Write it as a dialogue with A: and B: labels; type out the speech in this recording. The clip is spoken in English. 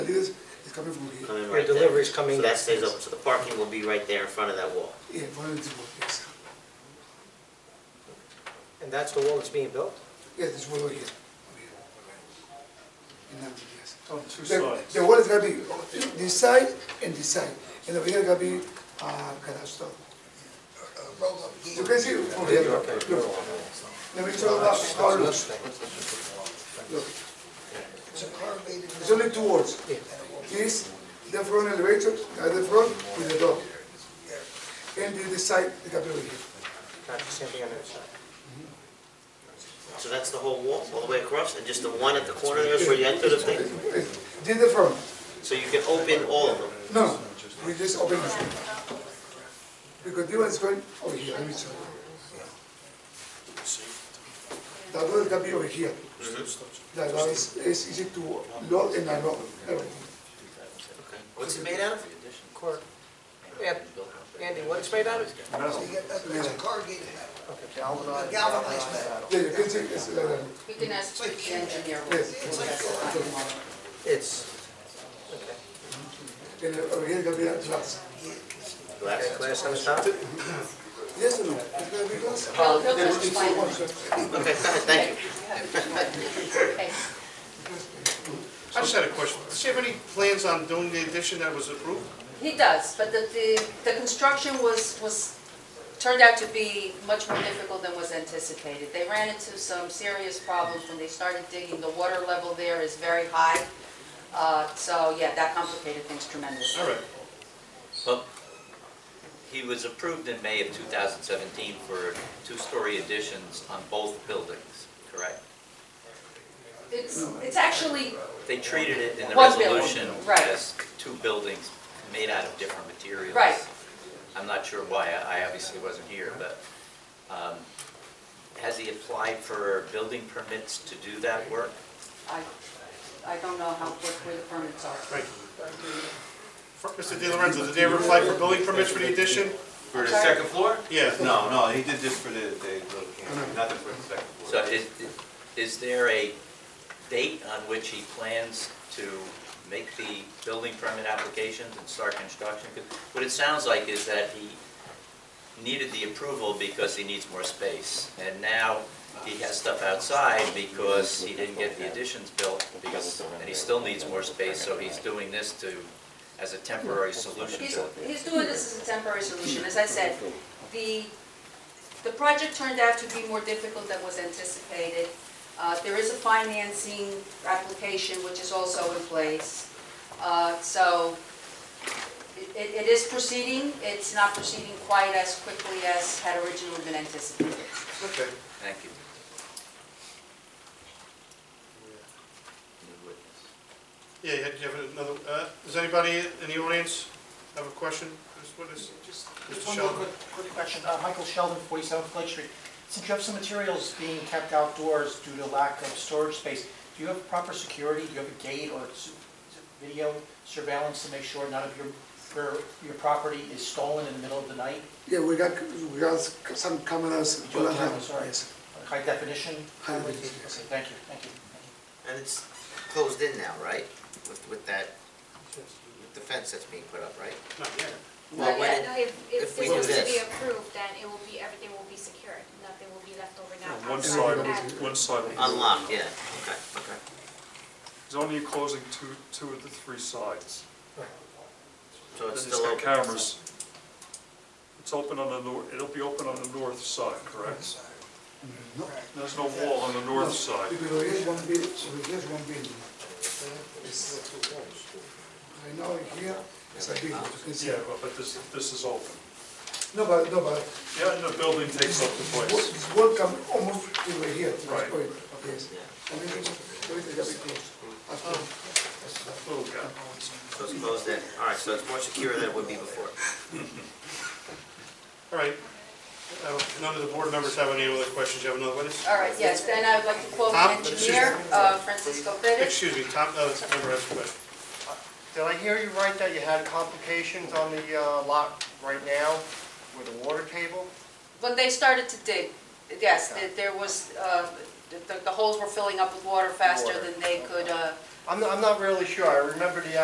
A: It's coming from here.
B: coming
C: Your
B: right there.
C: delivery's coming
B: So that stays
C: downstairs.
B: open, so the parking will be right there in front of that wall.
A: Yeah, one and two, yes.
C: And that's the wall that's being built?
A: Yeah, this wall over here. over here, right. And now, yes.
D: On two
A: The,
D: sides.
A: the wall is gonna be this side and this side, and over here gonna be, uh, garage door. You can see over here, look, look. Let me show you that, how it looks. Look, it's only two walls. This, the front elevator, at the front with the door. And the, the side, the gonna be over here.
C: Not the same thing on the other side?
B: So that's the whole wall, all the way across, and just the one at the corner there is where you enter the thing?
A: Did the front?
B: So you can open all of them?
A: No, we just open this one. Because this one's going over here, let me show you. That one can be over here. That one is, is easy to load and unload, everything.
B: What's it made out of?
C: Cor- An- Andy, what it's made out of?
E: It's a corrugated metal,
D: Galvanized.
E: galvanized metal.
A: Yeah, you can see, it's, like that.
F: You can ask the engineer.
A: yes.
C: It's, okay.
A: And uh, over here can be a glass.
B: Glass?
C: Glass on the top?
A: Yes or no? It's gonna be glass?
F: No, no, that's fine.
B: Okay, go ahead, thank you.
F: Okay.
D: I just had a question. Does he have any plans on doing the addition that was approved?
F: He does, but the, the, the construction was, was, turned out to be much more difficult than was anticipated. They ran into some serious problems when they started digging. The water level there is very high. Uh, so, yeah, that complicated things tremendously.
D: All right.
B: Oh.
G: Well, he was approved in May of 2017 for two-story additions on both buildings, correct?
F: It's, it's actually,
G: They treated it in the
F: One building,
G: resolution
F: right.
G: as two buildings made out of different materials.
F: Right.
G: I'm not sure why, I I obviously wasn't here, but um, has he applied for building permits to do that work?
F: I, I don't know how, what, where the permits are.
D: Right. Mr. Di Lorenzo, did they ever apply for building permits for the addition?
H: For the second floor?
D: Yeah.
H: No, no, he did this for the, the little camp, nothing for the second floor.
G: So is, is there a date on which he plans to make the building permit applications and start construction? 'Cause What it sounds like is that he needed the approval because he needs more space. And now he has stuff outside because he didn't get the additions built, because, and he still needs more space, so he's doing this to, as a temporary solution
F: He's,
G: to it.
F: he's doing this as a temporary solution, as I said. The, the project turned out to be more difficult than was anticipated. Uh, there is a financing application which is also in place. Uh, so it- it, it is proceeding, it's not proceeding quite as quickly as had originally been anticipated.
D: Okay.
G: Thank you. New witness.
D: Yeah, you had, you have another, uh, does anybody in the audience have a question? This witness?
I: Just
D: Mr.
I: just one more
D: Sheldon.
I: quick, quick question. Uh, Michael Sheldon, 47 Flood Street. Since you have some materials being kept outdoors due to lack of storage space, do you have proper security? Do you have a gate or s- video surveillance to make sure none of your, your, your property is stolen in the middle of the night?
A: Yeah, we got, we got some cameras.
I: You do have cameras, all right.
A: Yes.
I: High definition?
A: High
I: cameras?
A: definition, yes.
I: Okay, thank you, thank you.
B: And it's closed in now, right? With, with that, with the fence that's being put up, right?
D: Not yet.
B: Well, when it-
J: No, if,
B: if
J: if
B: we
J: this was
B: do
J: to be
B: this-
J: approved, then it will be, everything will be secured, nothing will be left over now.
D: One
J: outside
A: side,
J: at-
A: one
D: side.
B: Unlocked, yeah, okay, okay.
K: He's only closing two, two of the three sides.
B: So
K: And
B: it's
K: he's
B: still
K: got
B: open.
K: cameras. It's open on the nor, it'll be open on the north side, correct?
A: No.
K: There's no wall on the north side.
A: Because over here is one building, over here is one building. It's- Right now, here, it's a building, you can see.
K: Yeah, but- but this, this is open.
A: No, but, no, but
K: Yeah, and the building takes up the place.
A: This work come almost to over here, to this
K: Right.
A: point, yes. I mean, everything got to be closed. That's all.
K: Little guy.
B: So it's closed in, all right, so it's more secure than it would be before.
D: All right. Uh, None of the board members have any other questions? You have another witness?
F: All right, yes, then I would like to quote the
D: Tom, excuse me.
F: engineer, uh, Francisco Perez.
D: Excuse me, Tom, uh, this member has a question.
I: Did I hear you right that you had complications on the uh, lot right now with the water table?
F: When they started to dig, yes, there- there was, uh, the the holes were filling up with water faster
I: Water,
F: than they could uh,
I: I'm, I'm not really sure. I remember the